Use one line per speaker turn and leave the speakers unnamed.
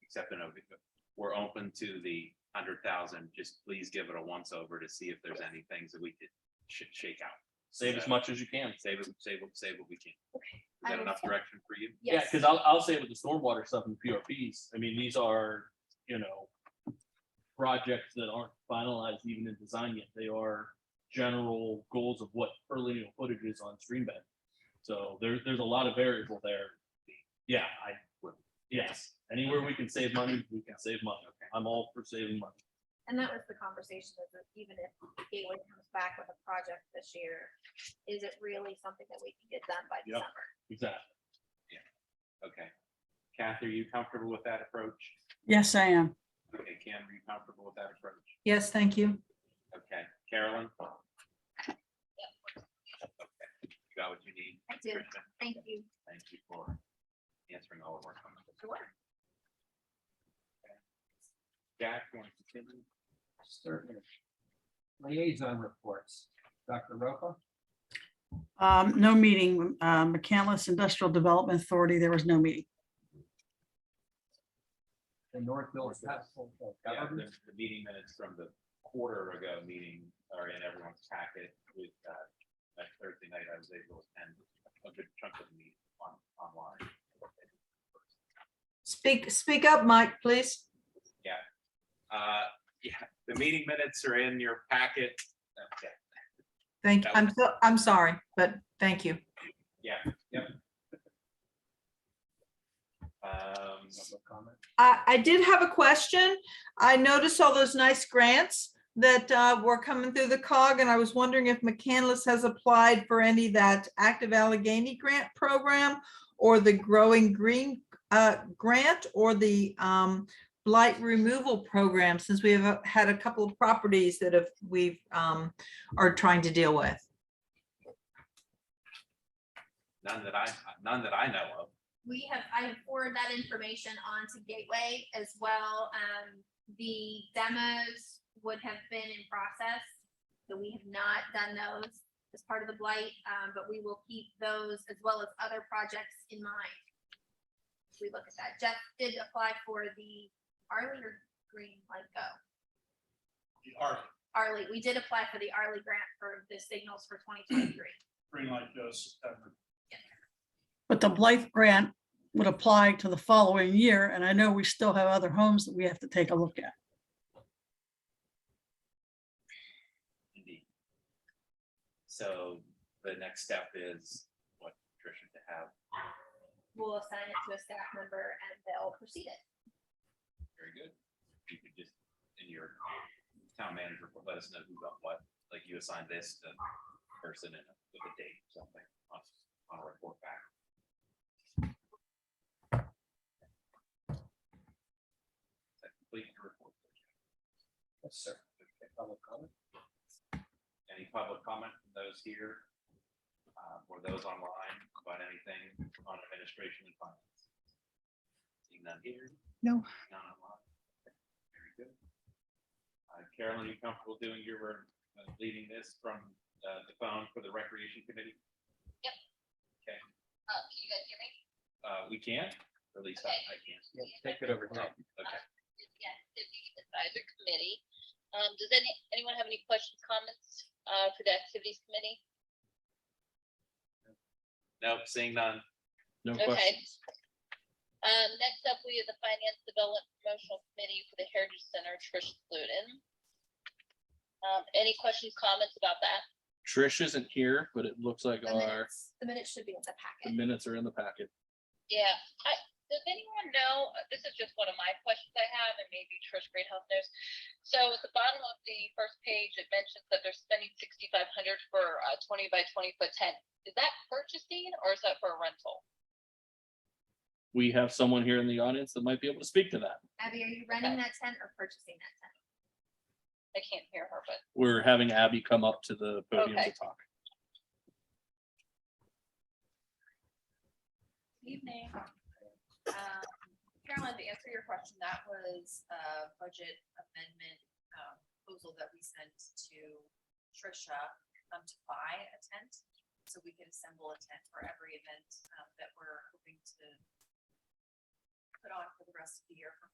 accepting of, we're open to the hundred thousand, just please give it a once over to see if there's any things that we could sh- shake out.
Save as much as you can.
Save, it- save, it- save what we can. Is
I
that
would
enough
say-
direction for you?
Yeah,
Yes,
because I'll, I'll say with the stormwater stuff and PRPs, I mean, these are, you know, projects that aren't finalized even in design yet. They are general goals of what early footage is on stream bed. So there, there's a lot of variable there. Yeah, I, would- yes, anywhere we can save money, we can save money. I'm all for saving money.
and that was the conversation of the- even if Gateway comes back with a project this year, is it really something that we can get done by
Yep.
December?
Exactly.
Okay. Kathy, are you comfortable with that approach?
Yes, I am.
Okay, Cam, are you comfortable with that approach?
Yes, thank you.
Okay, Carolyn? Okay, You got what you need?
I do.
Kristen?
Thank you.
Thank you for answering all of our comments.
Sure.
Jack, you want to continue?
Certainly. Liaison reports. Dr. Roca,
Um, no meeting, uh, McCandless Industrial Development Authority, there was no meeting.
the Northville Council of
Yeah, the,
Governments.
the meeting minutes from the quarter ago meeting are in everyone's packet with, uh, that Thursday night, I was able to attend a good chunk of the meeting on, online.
Speak, speak up, Mike, please.
Uh, yeah, the meeting minutes are in your packet. Okay.
Thank,
That
I'm, so- I'm sorry, but thank you.
Um,
Public comment.
I, I did have a question. I noticed all those nice grants that uh, were coming through the cog, and I was wondering if McCandless has applied for any that active Allegheny grant program or the Growing Green uh, grant or the um, blight removal program, since we have uh, had a couple of properties that have, we've, um, are trying to deal with.
none that I, none that I know of.
We have, I have forwarded that information on to Gateway as well. Um, the demos would have been in process. So we have not done those as part of the blight, um, but we will keep those as well as other projects in mind. As We look at that. Jeff did apply for the Arlie or Green Light Go.
the art,
Arlie, we did apply for the Arlie grant for the signals for twenty twenty-three.
green light goes September.
But the Blythe grant would apply to the following year, and I know we still have other homes that we have to take a look at.
Indeed. So the next step is what Tricia to have.
We'll assign it to a staff member and they'll proceed it.
Very good. You could just, in your town manager, report, let us know who got what, like you assigned this to person and with a date, or something, on, on a report back. Is that complete your report?
Yes, sir. Public comment.
Any public comment from those here? uh, Or those online about anything on administration and finance? Seeing none here?
No.
None online? Very good. Uh, Carolyn, you comfortable doing your, uh, leading this from uh, the phone for the recreation committee?
Oh,
Uh, can you guys hear me?
Uh, We can, at least I I can.
Yeah, Take it over. Ted.
Okay.
Yes, the Beacon Advisory Committee. Um, does any, anyone have any questions, comments, uh, for the Activities Committee?
Nope, seeing none.
No
Okay.
questions.
Um, next up, we have the Finance Development Promotional Committee for the Heritage Center, Trish Luton. Um, any questions, comments about that?
Trish isn't here, but it looks like
The
our,
minutes, the minutes should be in the
the
packet.
minutes are in the packet.
Yeah, I, does anyone know, uh, this is just one of my questions I have, and maybe Trish Greenhouse knows. So at the bottom of the first page, it mentions that they're spending sixty-five hundred for a twenty by twenty foot tent. Is that purchasing or is that for a rental?
We have someone here in the audience that might be able to speak to that.
Abby, are you renting that tent or purchasing that tent?
I can't hear her, but
We're having Abby come up to the podium to
Okay.
talk.
Evening. Um, Carolyn, to answer your question, that was a budget amendment um, proposal that we sent to Tricia um, to buy a tent. So we could assemble a tent for every event um, that we're hoping to put on for the rest of the year for